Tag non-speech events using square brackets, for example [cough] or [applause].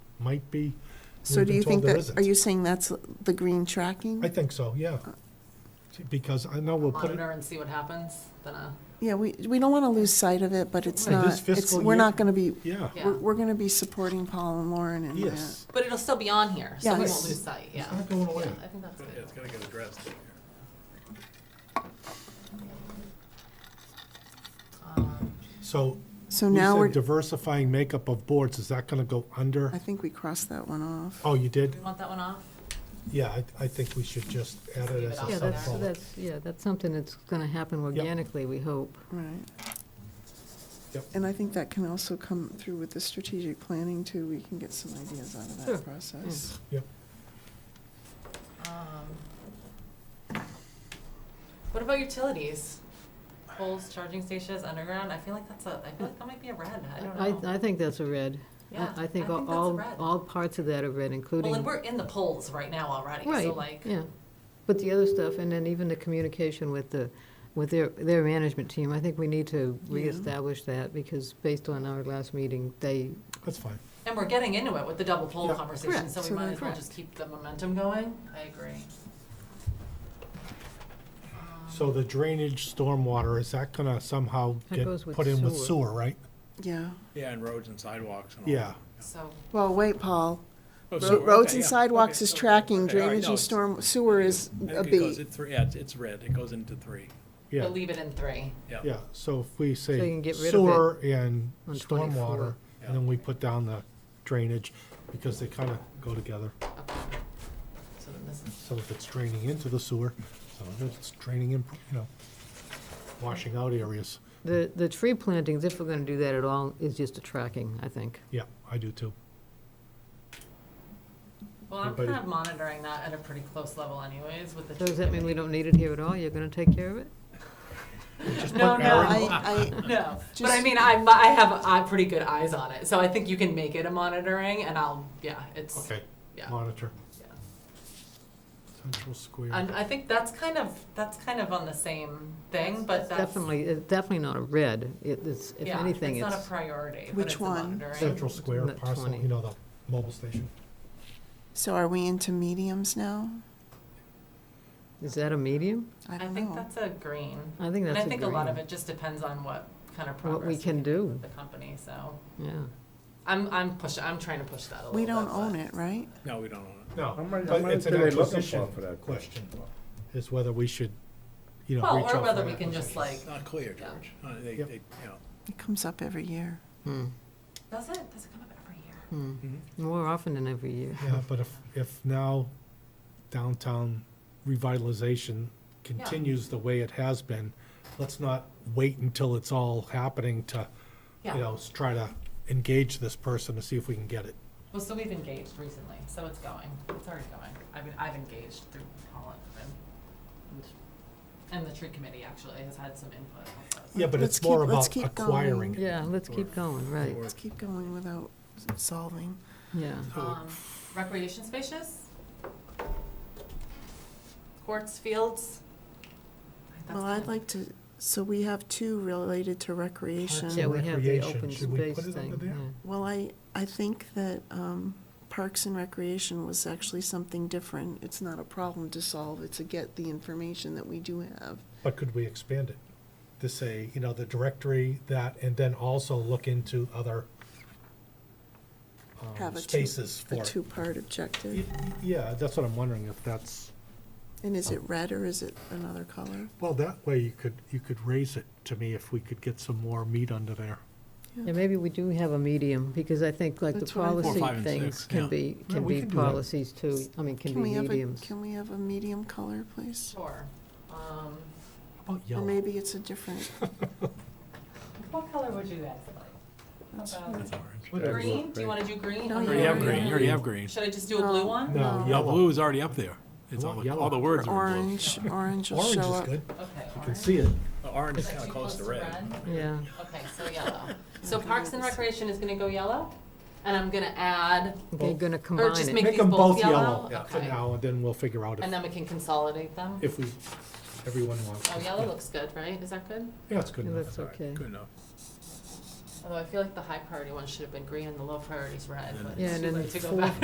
might be. So We've do been you told think there that, isn't. are you Uh. saying that's the green tracking? I think so, yeah. Because I know we'll put it, monitor and see what happens, then uh, Yeah, we, we don't want to lose sight of it, but it's Right, not, this it's, fiscal we're year- not going to be, yeah, Yeah. we're, we're going to be supporting Paul and Lauren and that. yes. but it'll still be on here, so we Yes. won't lose sight, yeah. It's Mm-hmm. not going away. Yeah, I think that's Yeah, good. it's gotta get addressed. Um, So So you now said we're, diversifying makeup of boards, is that gonna go under? I think we crossed that one off. Oh, you did? Do you want that one off? Yeah, I, I think we should just add it as Yeah, a Yeah, that's, sub-bullet. that's, yeah, that's something that's going to happen organically, we hope. Right. Yep. And I think that can also come through with the strategic planning too. We can get some ideas out of Sure, that process. Um, What about utilities? Poles, charging stations, underground, I feel like that's a, I feel like that might be a red, I don't I, know. I think that's a red. I- Yeah, I think that's a all, red. all parts of that are red, including. Well, and we're in the polls right now already, so Right, like, yeah. But the other stuff, and then even the communication with the, with their, their management team, I think we need to Yeah. reestablish that because based on our last meeting, they, That's fine. and we're getting into it with the double poll Yeah. conversation, Correct, so we so might then- as well just keep the momentum going. I agree. So the drainage stormwater, is that gonna somehow That get goes with put in with sewer. sewer, right? Yeah. Yeah, and roads and sidewalks and all. Yeah. So, Well, wait, Paul. Ro- Oh, sewer, Roads okay, and yeah, sidewalks okay, is okay, tracking, okay, all right, drainage no, and it's- storm, sewer is I a think it goes, B. it three, yeah, it's, it's red, it goes into three, Yeah, we'll leave it in three. yeah. yeah, so if we So you say can get rid of it sewer and on stormwater, 24. and then we put down the drainage, because they kinda go together. Okay. So then this is, So if it's draining into the sewer, so if it's draining in, you know, washing out areas, the, the tree plantings, if we're going to do that at all, is just a tracking, I think. yeah, I do too. well, I'm Everybody- kind of monitoring that at a pretty close level anyways with the. So does that mean we don't need it here at all? You're going to take care of it? [laughs] Just No, put no, No, Aaron- I, [laughs] No, but I Just- mean, I, I have uh, pretty good eyes on it, so I think you can make it a monitoring, and I'll, yeah, it's, Okay, yeah. monitor, yeah. central square. And I think that's kind of, that's kind of on the same thing, but that's. Definitely, it's definitely not a red. It- It's, if yeah, anything, It's it's. not a priority, but Which it's a one? monitoring. Central Square Not parcel, 20. you know, the mobile station. I, so are we into mediums now? Is that a medium? I I don't think know. that's a green. I And think that's I a think a lot of green. it just depends on what kind of What we progress can do, with the company, so. yeah. I'm, I'm pushing, I'm trying to push that a little bit. We don't but- own it, right? No, we don't own No, How many- but how many it's do an they look for acquisition for that? question, is whether we should, you know, Well, reach out or for whether an we can just acquisition. like, it. Not clear, Yeah. George. Uh, They, Yep. they, you know, It comes up every year. Hmm. does it, does it come up every year? Hmm. More often than every year. Yeah, but if, if now downtown revitalization continues the way it has been, let's not wait until it's all happening to, you Yeah. know, s- try to engage this person to see if we can get it. Well, so we've engaged recently, so it's going. It's already going. I've been, I've engaged through Holland and, and the tree committee actually has had some input on this. Yeah, but Let's it's more keep- let's about keep acquiring it. Yeah, let's keep going, right, or- Let's keep going without solving. yeah. Um, recreation spaces? Courts, fields? That's Well, I'd fine. like to, so we have two related to Yeah, recreation. we have the Recreation, open should we space put it under thing, there? yeah. Well, I, I think that um, Parks and Recreation was actually something different. It's not a problem to solve, it's a get the information that we do have. But could we expand it to say, you know, the directory, that, and then also look into other um, Have a two- spaces A for it? two-part Y- objective. y- Yeah, that's what I'm wondering, if that's, And is it red or is it another color? well, that way you could, you could raise it to me if we could get some more meat under there. Yeah, maybe we do have a medium, because I think like the That's what I thought. Four, policy five, and things six, can yeah. be, Yeah, can we be can do that. policies too, I mean, can Can we be have a, mediums. can we have a medium color, please? Sure. Um, How about Or yellow? maybe it's a different, [laughs] what color would you guys like? that's How about that's orange. Whatever. green? Do you wanna do green? No, on you the Already have Oh, Yeah. green, you already have green. Should I just do a blue No. one? No, No. Yeah, blue yellow. is already up there. It's I all, want yellow. all the words are in blue. orange, orange will Orange show is up. good, Okay, you can orange. see it. The Orange is Is that kinda too close to red. Yeah, Okay, so yellow. So Parks and Recreation is gonna go yellow, and I'm gonna add, they're gonna or combine just it. make Make these them both both yellow? yellow for Okay. now, and then we'll figure out And if, then we can consolidate them? if we, everyone wants. Oh, it. yellow looks good, right? Is that good? Yeah, it's good Yeah, enough. That's okay. Good enough. Although I feel like the high priority one should have been green and the low priority's red, but Yeah, it's and too then late to go four- back.